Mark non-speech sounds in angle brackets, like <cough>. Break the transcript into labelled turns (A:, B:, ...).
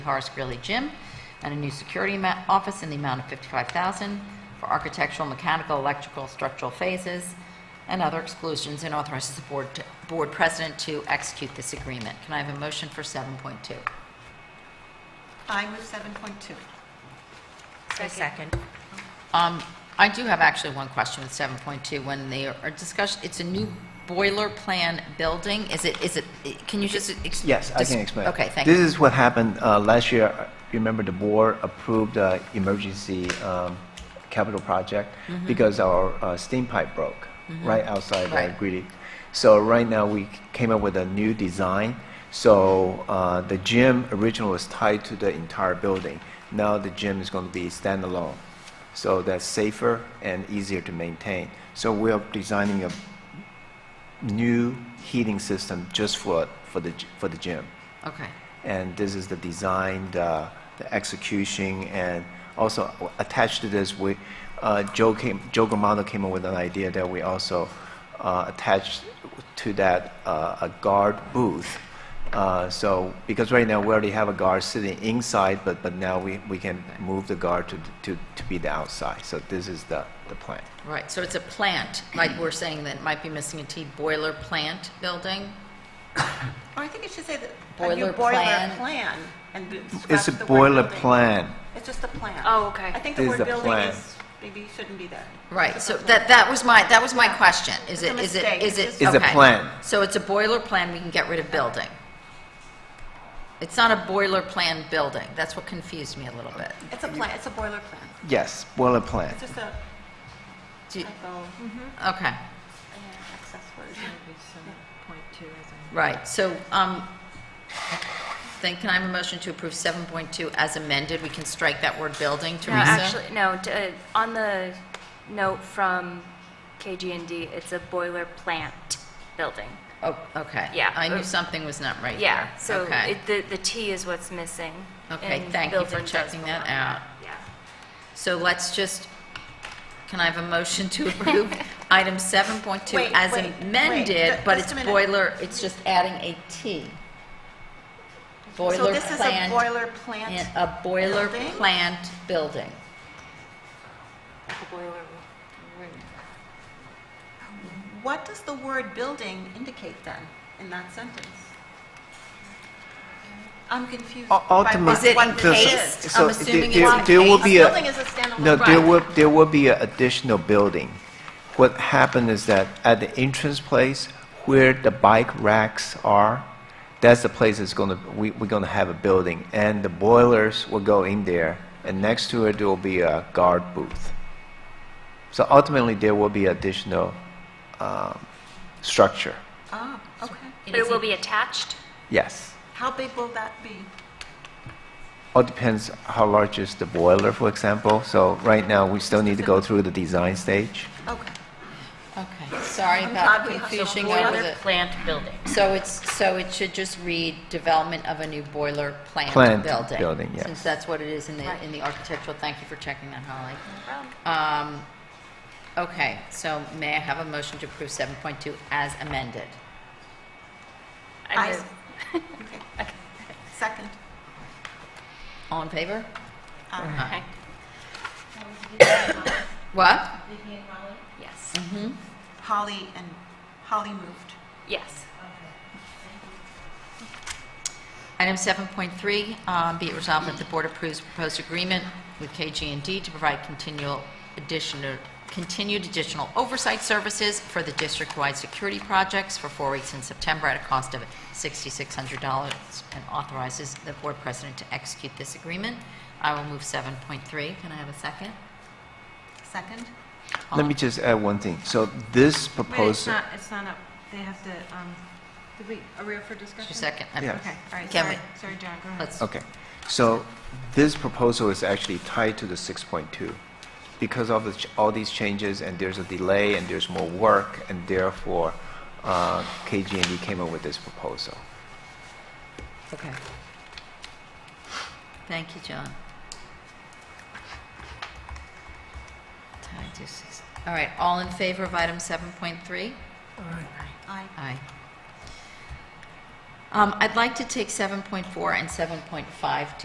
A: Horace Greeley Gym, and a new security ma- office in the amount of 55000 for architectural, mechanical, electrical, structural phases, and other exclusions, and authorizes the board, to- board president to execute this agreement. Can I have a motion for 7.2?
B: I move 7.2.
C: Second.
A: Um, I do have actually one question with 7.2. When they are discussed, it's a new boiler plan building. Is it, is it, can you just? ex-
D: Yes, I
A: dis-
D: can explain.
A: Okay, thank
D: This
A: you.
D: is what happened uh, last year. You Remember, the board approved uh, emergency um, capital project because our uh, steam pipe broke right outside
A: Right.
D: right. Greeley. So right now we came up with a new design. So uh, the gym originally was tied to the entire building. Now the gym is going to be standalone. So that's safer and easier to maintain. So we are designing a new heating system just for, for the, g- for the gym.
A: Okay,
D: And this is the design, the, the execution, and also attached to this, we, uh, Joe came, Joe Gramato came up with an idea that we also, uh, attached to that, uh, a guard booth. Uh, so, because right now we already have a guard sitting inside, but, but now we, we can move the guard to, to, to be the outside. So this is the, the plan.
A: right. So it's a plant, like we're saying that it might be missing a T, boiler plant building?
B: Or I think it should say that a new
A: Boiler
B: boiler
A: plan.
B: plan. and it
D: It's
B: scraps
D: a
B: the word
D: boiler
B: building.
D: plan.
B: It's just a plan.
C: Oh, okay.
B: I think the
D: This
B: word
D: is a
B: building
D: plan.
B: is, maybe shouldn't be there.
A: Right,
B: It's
A: so
B: just a
A: that, that was my, that was my question. Is
B: It's
A: it,
B: a
A: is it,
B: mistake.
A: is it?
B: It's
D: just- It's a
A: okay.
D: plan.
A: So it's a boiler plan, we can get rid of building. It's not a boiler plan building, that's what confused me a little bit.
B: plan. It's a plan, it's a boiler plan.
D: Yes, boiler plan.
B: It's just a
A: Do you-
B: typo,
A: Okay,
B: uh, excess word.
A: right, so, um, then can I have a motion to approve 7.2 as amended? We can strike that word building,
C: No,
A: Teresa?
C: actually, no, d- uh, on the note from KG&D, it's a boiler plant building.
A: Oh, okay.
C: Yeah.
A: I knew something was not right there.
C: Yeah, so
A: Okay.
C: it- the the T is what's missing.
A: Okay,
C: and
A: thank you for
C: building does
A: checking that
C: belong
A: out.
C: there. Yeah.
A: So let's just, can I have a motion to
B: <laughs>
A: approve item 7.2
B: Wait,
A: as
B: wait, wait.
A: amended,
B: Ju-
A: but
B: just
A: it's
B: a minute.
A: boiler, it's just adding a T.
B: So
A: Boiler
B: this is a
A: plant,
B: boiler
A: and
B: plant.
A: a boiler
B: building?
A: plant building.
B: What does the word building indicate then, in that sentence? I'm confused. by what-
D: Ultimately,
A: Is it
B: what
A: the-
B: this
A: encased?
B: is.
D: so
A: I'm assuming
D: there-
A: it's
D: there will
A: encased.
B: A
D: be a-
B: building is a standalone.
D: No, there
A: Right.
D: will, there will be an additional building. What happened is that at the entrance place where the bike racks are, that's the place that's gonna, we, we're gonna have a building. And the boilers will go in there, and next to it, there will be a guard booth. So ultimately, there will be additional, um, structure.
B: Ah, okay.
C: But it will be attached?
D: Yes.
B: How big will that be?
D: All depends how large is the boiler, for example. So right now, we still need to go through the design stage.
B: Okay.
A: Okay, sorry
B: I'm
A: about
B: glad we-
A: confusing
B: so
A: over
B: boiler
A: the,
C: Plant building.
A: so it's, so it should just read development of a new boiler plant building.
D: Plant building, yes.
A: Since that's what it is in the, in the architectural, thank you for checking that, Holly. Um, Okay, so may I have a motion to approve 7.2 as amended?
C: I
B: I-
C: <laughs> move-
B: Okay. Second.
A: All in favor? Aye. What?
C: Yes,
A: Mm-hmm.
B: Holly and, Holly moved.
C: yes.
A: Item 7.3, um, be it resolved that the board approves proposed agreement with KG&D to provide continual additional, continued additional oversight services for the district-wide security projects for four weeks in September at a cost of $6,600 and authorizes the board president to execute this agreement. I will move 7.3. Can I have a second?
B: Second?
D: Let me just add one thing. So this
E: Wait, it's
D: proposal,
E: not, it's not up, they have to, um, did we, are we up for discussion?
A: Just a second.
D: Yeah.
E: Okay, all right,
A: Can we-
E: sorry, sorry, John, go ahead.
A: Let's,
D: okay. So this proposal is actually tied to the 6.2 because of the ch- all these changes and there's a delay and there's more work and therefore uh, KG&E came up with this proposal.
A: okay. Thank you, John. Tied to six- All right, all in favor of item 7.3?
B: Aye.
A: Aye. Um, I'd like to take 7.4 and 7.5